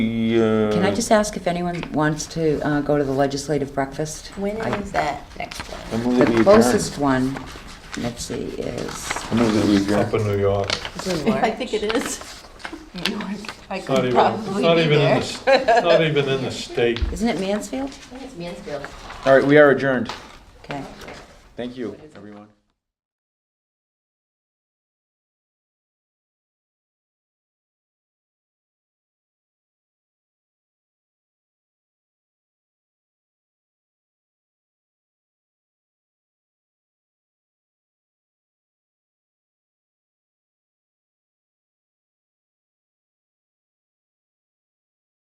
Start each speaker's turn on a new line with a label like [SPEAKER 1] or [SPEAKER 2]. [SPEAKER 1] uh...
[SPEAKER 2] Can I just ask if anyone wants to uh, go to the legislative breakfast?
[SPEAKER 3] When
[SPEAKER 2] I-
[SPEAKER 3] is that next one?
[SPEAKER 1] I move that we
[SPEAKER 2] The
[SPEAKER 1] adjourn.
[SPEAKER 2] closest one, let's see, is,
[SPEAKER 1] I move that we
[SPEAKER 4] Up in
[SPEAKER 1] adjourn.
[SPEAKER 4] New York.
[SPEAKER 3] It's in
[SPEAKER 5] I
[SPEAKER 3] March.
[SPEAKER 5] think it is.
[SPEAKER 3] I
[SPEAKER 4] It's not
[SPEAKER 3] could
[SPEAKER 4] even, it's
[SPEAKER 3] probably
[SPEAKER 4] not
[SPEAKER 3] be
[SPEAKER 4] even in
[SPEAKER 3] there.
[SPEAKER 4] the, s- it's not even in the state.
[SPEAKER 2] isn't it Mansfield?
[SPEAKER 3] I think it's Mansfield.
[SPEAKER 1] All right, we are adjourned.
[SPEAKER 2] Okay.
[SPEAKER 1] Thank you, everyone.